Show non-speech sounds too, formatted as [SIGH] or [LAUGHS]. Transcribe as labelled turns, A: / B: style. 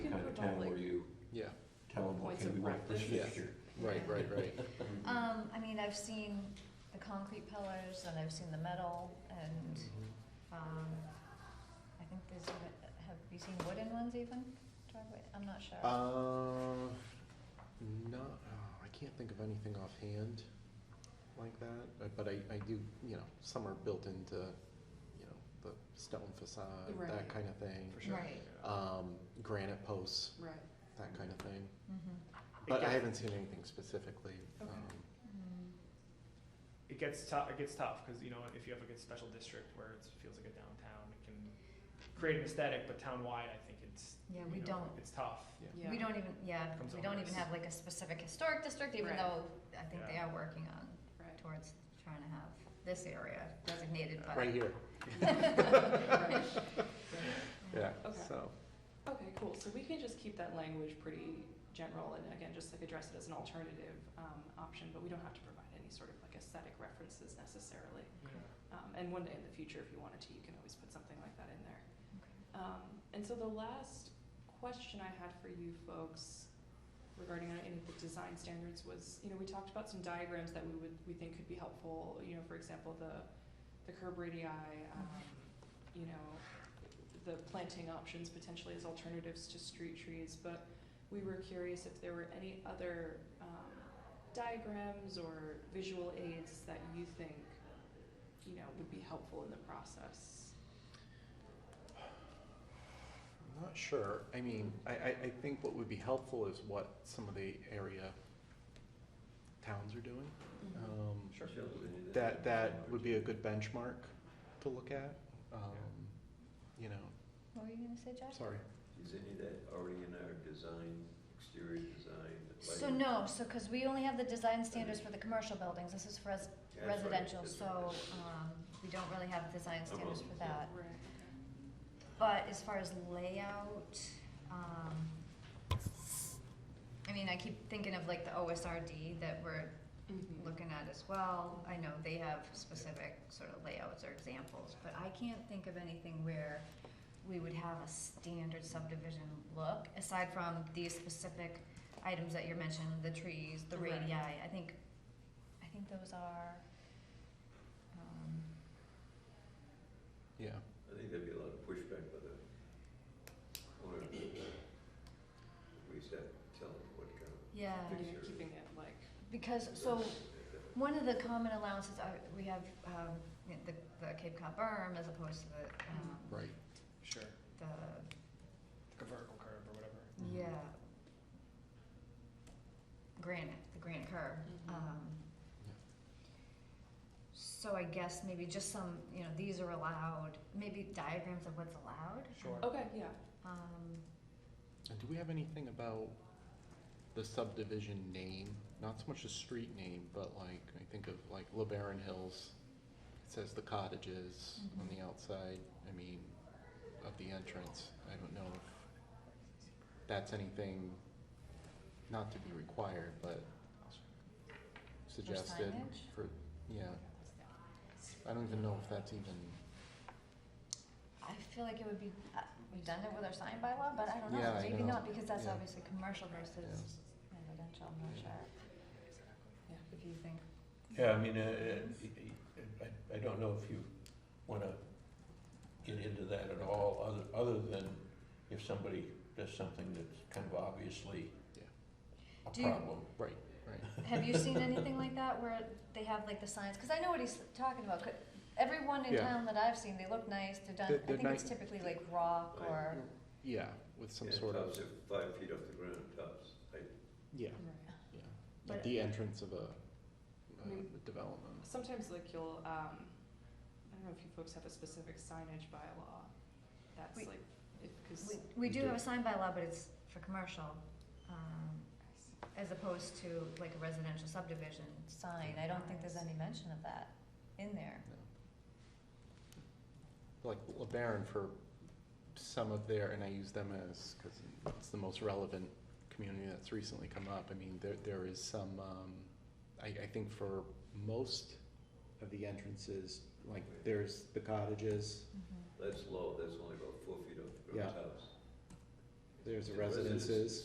A: points
B: okay, we
A: of
B: want this
A: reference.
C: Yeah.
B: fixture.
C: Right, right, right.
D: Um, I mean, I've seen the concrete pillars and I've seen the metal and, um, I think there's, even- have you seen wooden ones even? Driveway, I'm not sure.
C: [LAUGHS] Uh, no, oh, I can't think of anything offhand like that, uh, but I, I do, you know, some are built into, you know, the stone facade,
A: Right.
C: that kind of thing.
A: For sure.
D: Right.
C: Um, granite posts,
A: Right.
C: that kind of thing.
D: Mhm.
C: But I
E: gets-
C: haven't seen anything specifically.
A: Okay.
C: um,
D: Mm.
E: It gets tough. It gets tough because you know if you have like a special district where it feels like a downtown, it can create an aesthetic. But townwide, I think it's
D: Yeah,
E: you
D: we
E: know,
D: don't.
E: It's tough.
A: Yeah.
D: We don't even, yeah,
E: Comes
D: we
E: on
D: don't
E: us.
D: even have like a specific historic district, even
A: Right.
D: though I think they
E: Yeah.
D: are working on
A: Right.
D: towards trying to have this area designated, but. [LAUGHS]
C: Right
A: [LAUGHS]
C: here, [LAUGHS]
A: Right.
C: yeah,
A: Okay.
C: so,
A: Okay, cool. So we can just keep that language pretty general and again, just like address it as an alternative um, option, but we don't have to provide any sort of like aesthetic references necessarily. Um, and one day in the future, if you wanted to, you can always put something like that in there. Um, and so the last question I had for you folks regarding uh, any of the design standards was, you know, we talked about some diagrams that we would we think could be helpful. You know, for example, the the curb radii, um, you know, the planting options potentially as alternatives to street trees. But we were curious if there were any other um, diagrams or visual aids that you think, you know, would be helpful in the process.
C: I'm not sure, I mean, I, I, I think what would be helpful is what some of the area towns are doing. Um,
B: Sure.
C: that that would be a good benchmark to look at. Um, you know,
D: What were you gonna say, Jack?
C: sorry.
F: Is any of that already in our design, exterior design?
D: So
F: lighting?
D: no, so, cause we only have the design standards for the commercial buildings, this is for us
F: Yeah, that's right,
D: residential,
F: that's
D: so,
F: right, that's right.
D: um, we don't really have design standards
F: on,
D: for
F: yeah.
D: that.
A: Right.
D: But as far as layout, um, I mean, I keep thinking of like the OSRD that we're
A: Mhm.
D: looking at as well. I know they have specific sort of layouts or examples, but I can't think of anything where we would have a standard subdivision look, aside from these specific items that you're mentioning, the trees, the
A: Right.
D: radii. I think, I think those are, um,
C: Yeah.
F: I think there'd be a lot of pushback by the owner of the, we used to have to tell them what kind of
D: yeah.
A: And
F: Make
A: you're
F: sure.
A: keeping it like,
D: Because, so,
F: That-
D: One of the common allowances are, we have, um, you know, the, the Cape Cod berm as opposed to the, um,
C: Right.
E: Sure.
D: the,
E: Like a vertical curve or whatever.
C: Mhm.
D: yeah. Granite, the granite curb,
A: Mhm.
D: um.
C: Yeah.
D: So I guess maybe just some, you know, these are allowed, maybe diagrams of what's allowed,
E: Sure.
A: okay, yeah.
D: um,
C: And do we have anything about the subdivision name? Not so much the street name, but like, I think of like LeBaron Hills. It says the cottages on the outside, I mean, of the entrance. I don't know if that's anything not to be required, but suggested
D: signage?
C: for, yeah. I don't even know if that's even,
D: I feel like it would be uh, redundant with our sign bylaw, but I don't
C: Yeah,
D: know,
C: I
D: maybe
C: know.
D: not, because that's
C: Yeah.
D: obviously commercial
C: yeah.
D: versus residential, I'm not
C: Yeah.
D: sure,
A: Yeah.
D: if you think.
B: Yeah, I mean, uh, uh, I, I don't know if you wanna get into that at all, other, other than if somebody does something that's kind of obviously
C: Yeah.
B: a
D: Do you-
B: problem.
C: right, right.
D: Have you seen anything like that where they have like the signs? Because I know what he's talking about. 'cause Everyone in
C: Yeah.
D: town that I've seen, they look nice. They're done.
C: They're-
D: I
C: they're
D: think it's
C: nice.
D: typically like rock
F: Right.
D: or
C: [LAUGHS] Yeah, with some
F: yeah,
C: sort of,
F: Tops are five feet off the ground, tops, I,
C: yeah.
A: Right.
C: Yeah,
D: But-
C: at the entrance of a,
A: I
C: a
A: mean-
C: development.
A: Sometimes like you'll, um, I don't know if you folks have a specific signage bylaw that's
D: We-
A: like, if, cause.
D: we, we do
C: do.
D: have a sign by law, but it's for commercial, um, as opposed to like a residential subdivision sign. I don't think there's any mention of that in there.
C: No. Like LeBaron for some of their, and I use them as, because it's the most relevant community that's recently come up. I mean, there, there is some, um, I, I think for most of the entrances, like there's the cottages,
F: that's low, that's only about four feet off the
C: Yeah.
F: ground, tops.
C: there's the
F: The residences.
C: residences.